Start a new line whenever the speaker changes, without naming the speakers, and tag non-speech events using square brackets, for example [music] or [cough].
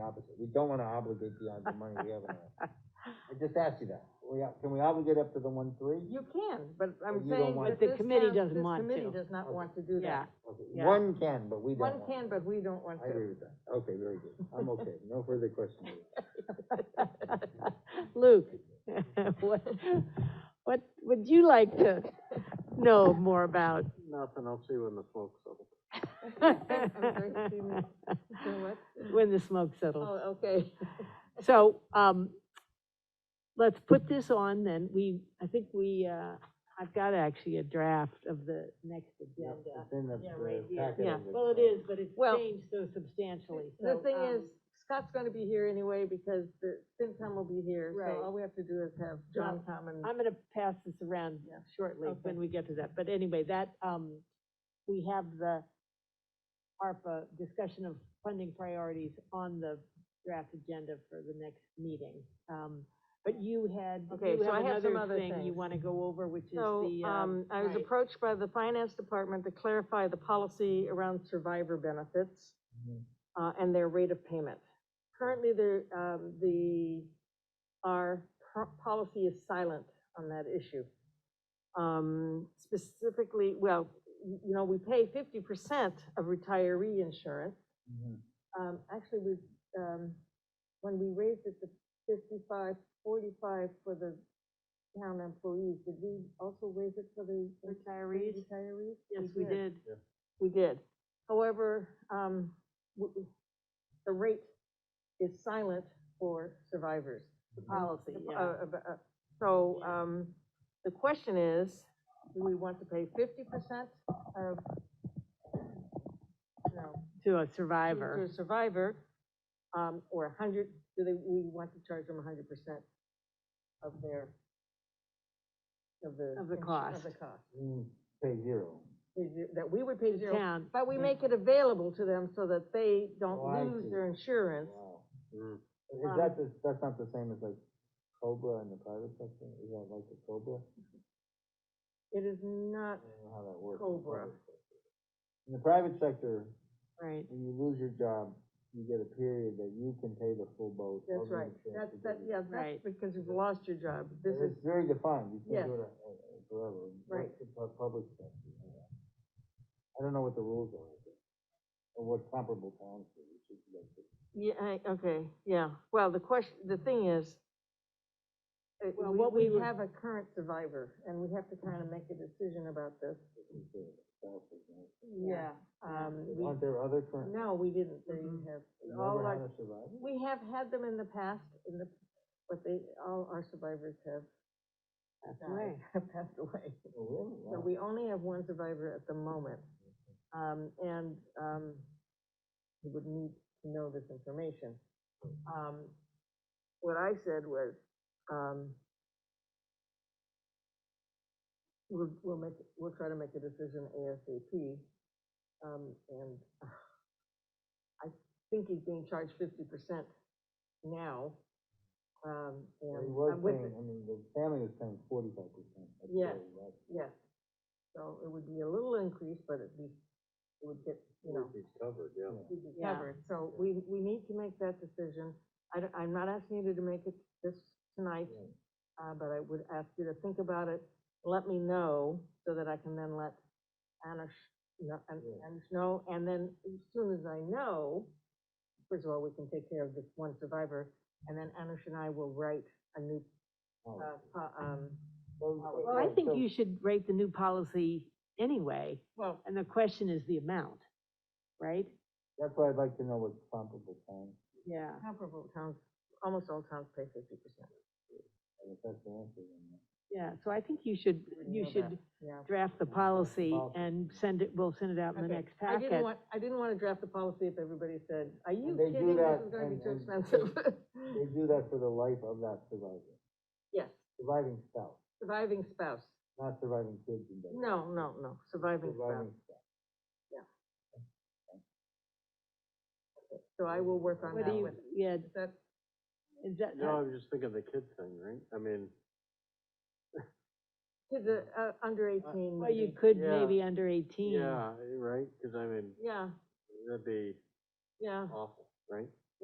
obligate, we don't wanna obligate beyond the money we have in
[laughs]
our. I just asked you that, we, can we obligate up to the one three?
You can, but I'm
But you don't
saying
want-
that
But the
this
committee
town-
doesn't
this
want
Committee
to.
does not
Okay.
want to do
Yeah.
that.
Yeah.
One can, but we don't want.
One can, but we don't want
I agree
to.
with that, okay, very good, I'm okay, no further questions.
[laughs] Luke, what, what would you like to know more about? [laughs]
Nothing, I'll see you in the smoke settle.
sorry, excuse me. So what?
When the smoke settles.
Oh, okay. [laughs]
So, um, let's put this on then. We, I think we, uh, I've got actually a draft of the next agenda.
It's in the-
Yeah,
the
right here.
packet
Yeah,
of
well, it is, but it's
Well,
changed so substantially,
The
so.
thing
um,
is, Scott's gonna be here anyway, because the FinCom will be here,
Right.
so all we have to do is have John come and.
I'm gonna pass this around
Yeah.
shortly
Okay.
when we get to that, but anyway, that, um, we have the ARPA discussion of funding priorities on the draft agenda for the next meeting. Um, but you had,
Okay,
you
so I
have
have some
another
other
thing you
things.
wanna go over, which is
So,
the,
um,
um.
I was
right.
approached by the finance department to clarify the policy around survivor benefits,
Mhm.
uh, and their rate of payment. Currently, there, um, the, our pro- policy is silent on that issue. Um, specifically, well, y- you know, we pay fifty percent of retiree insurance.
Mhm.
Um, actually, we, um, when we raised it to 55, 45 for the town employees, did we also raise it for the?
Retirees?
Retirees?
Yes, we did.
We did. However, um, w- w- the rate is silent for survivors.
The policy,
Uh,
yeah.
uh, uh, So,
Yeah.
um, the question is, do we want to pay fifty percent of, no,
To a
to
survivor.
a survivor, um, or a hundred, do they, we want to charge them a hundred percent of their, of the.
Of the
insu- Of
cost.
the cost.
Mm, Pay zero.
Is it- That we would pay zero,
Town,
but we
yeah.
make it available to them so that they don't
Mm. Oh, I see.
lose their insurance.
Wow.
Mm.
Is
Um,
that, the- that's not the same as like Cobra in the private sector, is that like the Cobra?
It is not,
I don't know how that works. in the
Cobra.
public sector. In the private sector,
right.
when you lose your job, you get a period that you can pay the full boat.
that's
of the
right,
insurance
that's,
to
that,
get it.
yeah, that's
Right.
because you've lost your job, this
But
is,
It's very defined, you
Yes.
can't do it uh, uh, forever. What's
Right.
the pu- Public sector, you know? I don't know what the rules are, I think, or what comparable towns do, we should look at.
yeah, I- okay, yeah, well, the question, the thing is, uh,
Well,
we-
what we
we
would-
have a current survivor, and we have to kind of make a decision about this.
what we do with spouses, you know?
Yeah, Mm-hmm. um, we,
Aren't there other current,
no, Oh, we didn't, they
Mhm.
have, all
never had
our,
a survivor?
we have had them in the past, in the, but they, all our survivors have
That's
died,
right.
[laughs] have passed away.
Oh, really? Wow.
So we only have one survivor at the moment, um, and, um, he would need to know this information. Um, what I said was, um, we'll, we'll make, we'll try to make a decision ASAP, um, and I think he's being charged fifty percent now, um,
Well,
and.
He was
I'm with it.
paying, I mean, the family was paying forty-five percent.
Yeah. Yes. So it would be a little increase, but it'd be, it would get, you know,
He's covered, yeah.
it'd be
Yeah.
covered. So we, we need to make that decision. I, don't- I'm not asking you to make it this tonight, uh, but I would ask you to think about it. Let me know so that I can then let Anish, know An-
Yeah.
Anish know. And then as soon as I know, first of all, we can take care of this one survivor. And then Anish and I will write a new, uh, po- um,
Well, I think you should rate the new policy anyway,
well,
and the question is the amount, right?
That's why I'd like to know what comparable towns,
Yeah.
comparable towns, almost all towns pay fifty percent.
and if that's the answer, then.
Yeah, so I think you should, you
know
should
Yeah.
draft the policy
Policy.
and send it, we'll send it out in the
Okay.
next
I didn't
packet.
want, I didn't want to draft the policy if everybody said, are you
they do
kidding? This
that
is going to be
and-
too
and-
expensive.
[laughs] They do that for the life of that survivor,
[laughs] Yes,
surviving spouse,
surviving spouse.
not surviving kids and babies.
No, no, no, surviving spouse.
Surviving spouse.
So I will work on
What do
that
you,
one.
yeah,
Is that,
is that,
No, I'm just thinking of the kid thing, right? I mean,
kids are, uh, under eighteen.
well, you
maybe.
could
Yeah.
maybe under eighteen.
yeah, right, cause I mean,
Yeah,
that'd be
yeah,
awful, right?